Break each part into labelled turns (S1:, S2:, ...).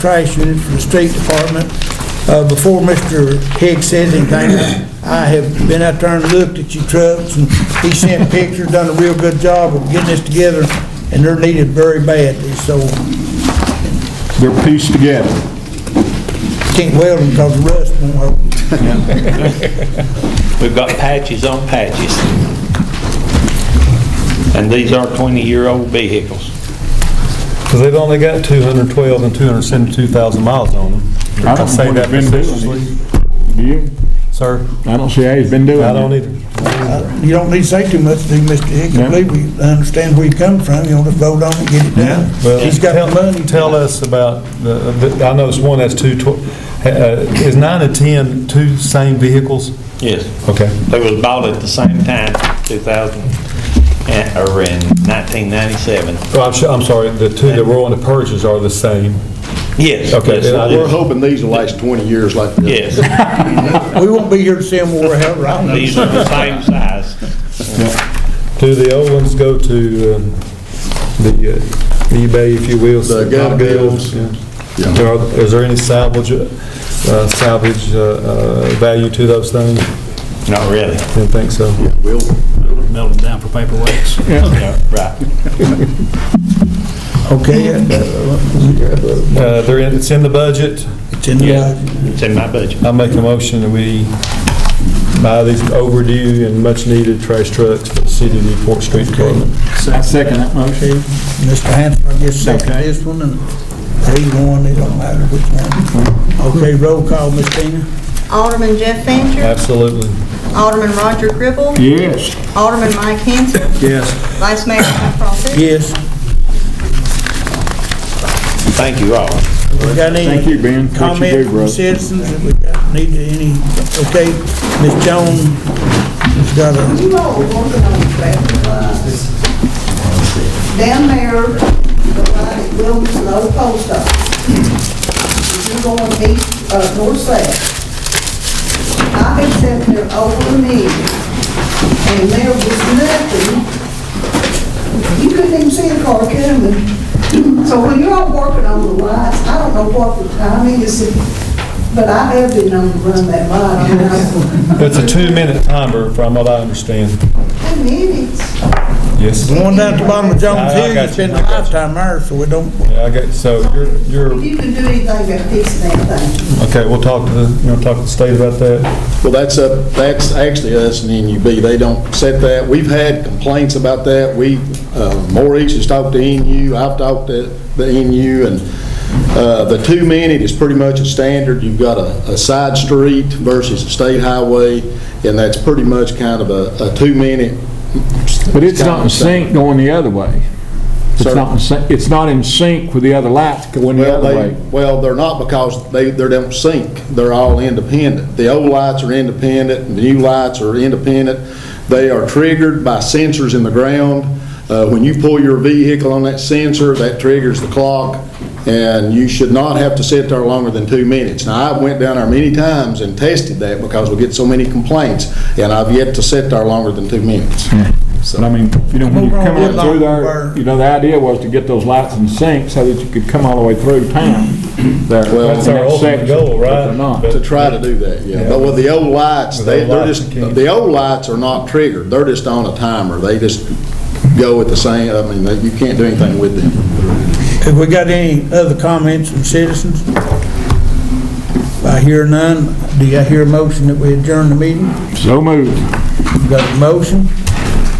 S1: trash unit for the street department. Uh, before Mr. Hicks says anything, I have been out there and looked at your trucks, and he sent pictures, done a real good job of getting this together, and they're needed very badly, so
S2: They're pieced together.
S1: can't weld them because of rust won't hold.
S3: We've got patches on patches. And these are 20-year-old vehicles.
S4: Because they've only got 212 and 272,000 miles on them.
S2: I don't
S4: Say
S2: know what
S4: that
S2: he's been
S4: facetiously.
S2: doing. Do you?
S4: Sir,
S2: I don't see how he's been doing it.
S4: I don't either.
S1: You don't need to say too much, do you, Mr. Hicks? I
S2: No.
S1: believe we understand where you come from, you want to vote on it, get it done.
S4: Well,
S1: He's got
S4: tell-
S1: the money.
S4: Tell us about, the. the- I noticed one has two, tw- uh, is nine and 10 two same vehicles?
S3: Yes.
S4: Okay.
S3: They was bought at the same time, 2000, and- or in 1997.
S4: Oh, I'm su- I'm sorry, the two that were on the purchase are the same.
S3: Yes.
S4: Okay,
S3: yes,
S4: and I
S5: We're
S4: didn't-
S5: hoping these will last 20 years like this.
S3: Yes,
S1: We won't be here to see him where we're at.
S3: these are the same size.
S4: Do the old ones go to um, the uh, eBay, if you will?
S5: The gun bills.
S4: yeah. There are- Is there any salvage, uh, salvage uh, uh, value to those things?
S3: Not really.
S4: Didn't think so.
S5: We'll,
S6: melt them down for paperweights.
S3: Yeah, Right.
S1: Okay, uh,
S4: Uh, They're in, it's in the budget.
S1: it's in the budget.
S3: It's in my budget.
S4: I make a motion that we buy these overdue and much-needed trash trucks for the city of Newport Street Department.
S2: I second that motion.
S1: Mr. Hanson, I guess, second this one, and either one, it don't matter which one. Okay, roll call, Ms. Tina?
S7: Alderman Jeff Fancher.
S4: Absolutely.
S7: Alderman Roger Cribble.
S2: Yes.
S7: Alderman Mike Hanson.
S4: Yes.
S7: Vice Mayor Mike Profit.
S1: Yes.
S3: Thank you all.
S1: We got any?
S2: Thank you, Ben. What you do,
S1: Comments from
S2: brother?
S1: citizens that we got, need any, okay, Ms. Jones has got a
S8: you all working on the traffic lights. Down there, the light at Williams and Old Post Office. If you're going east, uh, north south, I've been sitting there over a minute, and there was nothing. You couldn't even see a car coming. So when you're all working on the lights, I don't know what the timing is, but I have been known to run that light. I mean, I-
S4: It's a two-minute timer, from what I understand.
S8: Ten minutes.
S4: Yes.
S1: The one down at the bottom of Jones
S4: I- I
S1: Hill,
S4: got
S1: it's been
S4: you, I got
S1: five time there, so we don't,
S4: Yeah, I got, so you're,
S8: If
S4: you're,
S8: you can do anything to fix that thing,
S4: okay, we'll talk to the, you want to talk to the state about that?
S5: Well, that's up, that's actually us and NUB. They don't set that. We've had complaints about that. We, uh, Maurice has talked to NU, I've talked to the NU, and uh, the two-minute is pretty much a standard. You've got a a side street versus a state highway, and that's pretty much kind of a a two-minute.
S2: But it's
S5: kind
S2: not
S5: of
S2: in
S5: standard.
S2: sync going the other way. It's
S5: Sir?
S2: not, in syn- it's not in sync with the other lights going the
S5: Well,
S2: other
S5: they,
S2: way.
S5: well, they're not because they, they don't sync. They're all independent. The old lights are independent, the new lights are independent. They are triggered by sensors in the ground. Uh, when you pull your vehicle on that sensor, that triggers the clock, and you should not have to sit there longer than two minutes. Now, I went down there many times and tested that because we get so many complaints, and I've yet to sit there longer than two minutes.
S2: But I mean, you know, when
S1: Over
S2: you
S1: on
S2: come
S1: Woodlawn
S2: out through
S1: Road.
S2: there, you know, the idea was to get those lights in sync so that you could come all the way through town there.
S5: Well-
S4: That's our
S2: in that
S4: ultimate
S2: section,
S4: goal,
S2: but
S4: right?
S2: they're not.
S5: To try to do that, yeah. But with the old lights,
S4: With
S5: they,
S4: old
S5: they're
S4: lights,
S5: just,
S4: you can't.
S5: the old lights are not triggered. They're just on a timer. They just go at the same, I mean, they- you can't do anything with them.
S1: have we got any other comments from citizens? I hear none. Do you hear a motion that we adjourn the meeting?
S2: So moved.
S1: We got a motion,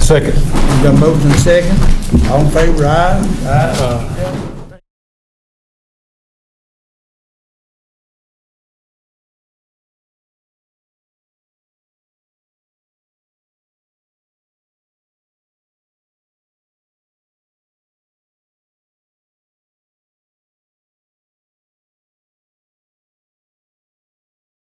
S4: Second.
S1: we got a motion and a second. All in favor, aye? Aye.